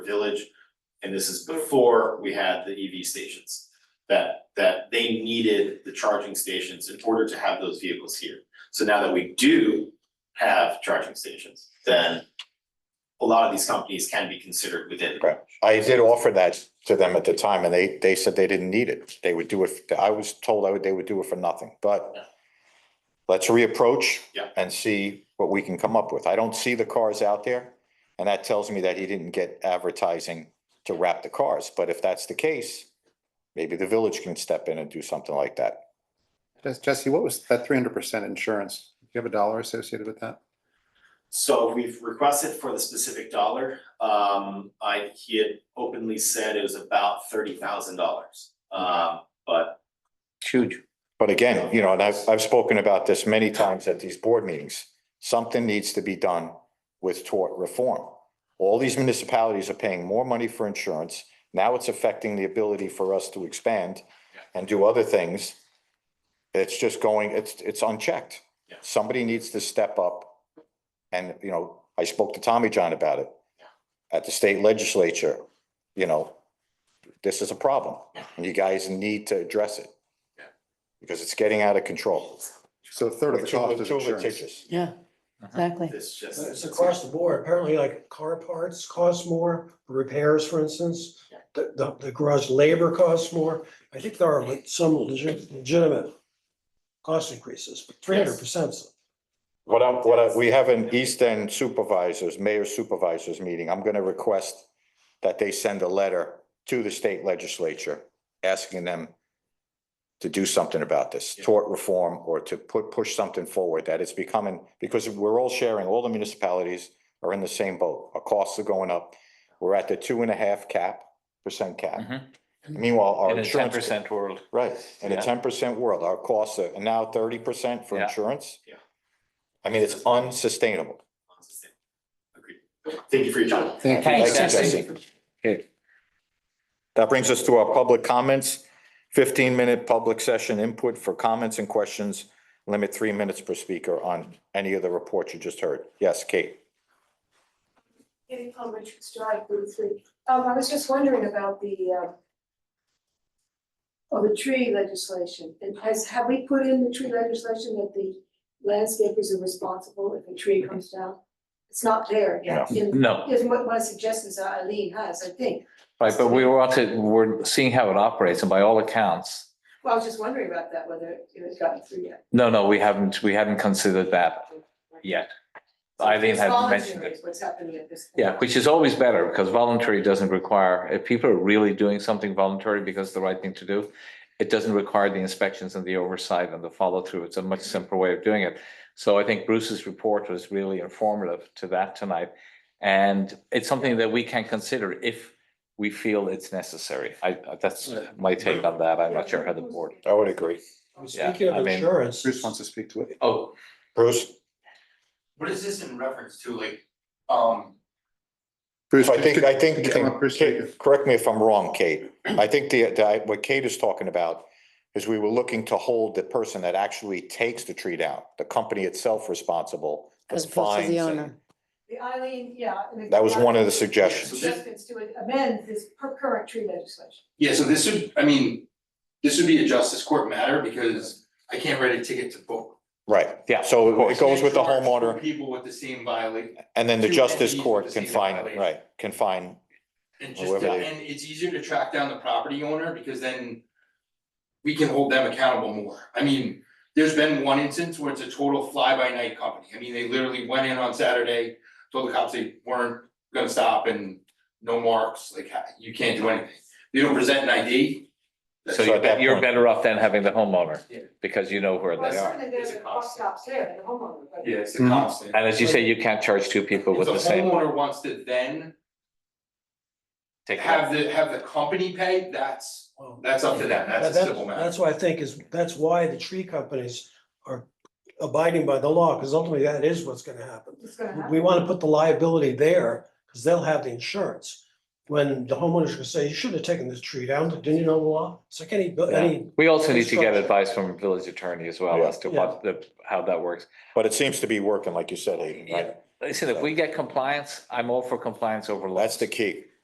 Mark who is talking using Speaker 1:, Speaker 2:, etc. Speaker 1: village. And this is before we had the EV stations. That that they needed the charging stations in order to have those vehicles here. So now that we do have charging stations, then. A lot of these companies can be considered within.
Speaker 2: Right. I did offer that to them at the time and they, they said they didn't need it. They would do it, I was told I would, they would do it for nothing, but
Speaker 1: Yeah.
Speaker 2: let's reapproach
Speaker 1: Yeah.
Speaker 2: and see what we can come up with. I don't see the cars out there. And that tells me that he didn't get advertising to wrap the cars, but if that's the case, maybe the village can step in and do something like that.
Speaker 3: Jess- Jesse, what was that three hundred percent insurance? Do you have a dollar associated with that?
Speaker 1: So we've requested for the specific dollar, um, I, he had openly said it was about thirty thousand dollars. Um, but
Speaker 4: Huge.
Speaker 2: But again, you know, and I've, I've spoken about this many times at these board meetings. Something needs to be done with tort reform. All these municipalities are paying more money for insurance. Now it's affecting the ability for us to expand and do other things. It's just going, it's, it's unchecked.
Speaker 1: Yeah.
Speaker 2: Somebody needs to step up. And, you know, I spoke to Tommy John about it. At the state legislature, you know, this is a problem. and You guys need to address it because it's getting out of control.
Speaker 3: So a third of the
Speaker 2: Too-
Speaker 3: cost is
Speaker 2: too
Speaker 3: insurance.
Speaker 2: litigious.
Speaker 4: Yeah, exactly.
Speaker 1: this just.
Speaker 5: Uh, It's across the board. Apparently, like car parts cost more, repairs, for instance. The, the, the garage labor costs more. I think there are like some legit, legitimate cost increases, but three hundred percent.
Speaker 2: What I, what I, we have an East End supervisors, mayor supervisors meeting. I'm gonna request that they send a letter to the state legislature asking them to do something about this,
Speaker 1: Yeah.
Speaker 2: tort reform, or to put, push something forward, that it's becoming, because we're all sharing, all the municipalities are in the same boat. Our costs are going up. We're at the two and a half cap, percent cap.
Speaker 4: Mhm.
Speaker 2: Meanwhile, our
Speaker 4: In a ten
Speaker 2: insurance.
Speaker 4: percent world.
Speaker 2: Right, in a
Speaker 4: Yeah.
Speaker 2: ten percent world, our costs are now thirty percent for
Speaker 4: Yeah.
Speaker 2: insurance.
Speaker 1: Yeah.
Speaker 2: I mean, it's unsustainable.
Speaker 1: Agreed. Thank you for your time.
Speaker 3: Thank you.
Speaker 4: Thanks,
Speaker 2: Thank you,
Speaker 4: Jesse.
Speaker 2: That brings us to our public comments. Fifteen minute public session input for comments and questions. Limit three minutes per speaker on any of the reports you just heard. Yes, Kate?
Speaker 6: Katie Palm Richards Drive, Route Three. Um, I was just wondering about the, uh, oh, the tree legislation. And has, have we put in the tree legislation that the landscapers are responsible if a tree comes down? It's not there yet. In-
Speaker 4: No,
Speaker 6: Is what my suggestions that Eileen has, I think.
Speaker 4: right, but we want to, we're seeing how it operates and by all accounts,
Speaker 6: Well, I was just wondering about that, whether it has gotten through yet.
Speaker 4: no, no, we haven't, we haven't considered that yet. Eileen
Speaker 6: It's
Speaker 4: had
Speaker 6: voluntary
Speaker 4: mentioned it.
Speaker 6: is What's happening at this? point.
Speaker 4: Yeah, which is always better because voluntary doesn't require, if people are really doing something voluntary because it's the right thing to do, it doesn't require the inspections and the oversight and the follow through. It's a much simpler way of doing it. So I think Bruce's report was really informative to that tonight. And it's something that we can consider if we feel it's necessary. I, I- that's my take on that. I'm not sure how the board.
Speaker 2: I would agree.
Speaker 4: Yeah,
Speaker 5: Speaking
Speaker 4: I
Speaker 5: of
Speaker 4: mean-
Speaker 5: insurance.
Speaker 3: Bruce wants to speak to it.
Speaker 4: Oh,
Speaker 2: Bruce?
Speaker 7: What is this in reference to, like, um,
Speaker 3: Bruce,
Speaker 2: I think,
Speaker 3: could-
Speaker 2: I think,
Speaker 3: could you come up, Bruce?
Speaker 2: Kate, correct me if I'm wrong, Kate. I think the, the- what Kate is talking about is we were looking to hold the person that actually takes the tree down, the company itself responsible. with
Speaker 8: As opposed to the
Speaker 2: fines and-
Speaker 8: owner.
Speaker 6: The Eileen, yeah. and the-
Speaker 2: That was one of the
Speaker 7: So
Speaker 2: suggestions.
Speaker 7: this-
Speaker 6: Adjustments to amend this per- current tree legislation.
Speaker 7: yeah, so this would, I mean, this would be a justice court matter because I can't write a ticket to book.
Speaker 2: Right,
Speaker 4: yeah.
Speaker 2: so
Speaker 7: I
Speaker 2: it goes
Speaker 7: can't
Speaker 2: with the
Speaker 7: charge
Speaker 2: homeowner
Speaker 7: two People with the same violation,
Speaker 2: and then the
Speaker 7: two
Speaker 2: justice
Speaker 7: entities with
Speaker 2: court
Speaker 7: the
Speaker 2: can
Speaker 7: same
Speaker 2: find,
Speaker 7: violation.
Speaker 2: right, can find,
Speaker 7: and just,
Speaker 2: Whoever they-
Speaker 7: and it's easier to track down the property owner because then we can hold them accountable more. I mean, there's been one instance where it's a total fly-by-night company. I mean, they literally went in on Saturday, told the cops they weren't gonna stop and no marks, like, you can't do anything. They don't present an ID. that's
Speaker 4: So
Speaker 2: So
Speaker 4: you're,
Speaker 2: at that
Speaker 4: bet- you're
Speaker 2: point-
Speaker 4: better off than having the homeowner
Speaker 7: Yeah.
Speaker 4: because you know where
Speaker 6: Well,
Speaker 4: they are.
Speaker 6: certainly there's
Speaker 7: It's
Speaker 6: a
Speaker 7: a
Speaker 6: cost
Speaker 7: cost.
Speaker 6: stops there, the homeowner, but.
Speaker 7: Yeah, it's a
Speaker 3: Mhm.
Speaker 7: constant.
Speaker 4: And as you say, you can't charge two people with the
Speaker 7: If the
Speaker 4: same.
Speaker 7: homeowner wants to then
Speaker 4: take it out.
Speaker 7: have the, have the company pay, that's,
Speaker 5: Well,
Speaker 7: that's up to them, that's a
Speaker 5: Um, that-
Speaker 7: civil matter.
Speaker 5: That's why I think is, that's why the tree companies are abiding by the law, because ultimately that is what's gonna happen.
Speaker 6: It's gonna
Speaker 5: we
Speaker 6: happen.
Speaker 5: want to put the liability there because they'll have the insurance. When the homeowner's gonna say, you should have taken this tree down, didn't you know the law? It's like any,
Speaker 4: Yeah.
Speaker 5: any,
Speaker 4: We also need to get
Speaker 5: Construction.
Speaker 4: advice from village attorney as well
Speaker 2: Yeah.
Speaker 4: as to what the, how that works.
Speaker 2: but it seems to be working, like you said, Aiden, right?
Speaker 4: Listen, if we get compliance, I'm all for compliance over laws.
Speaker 2: That's the key.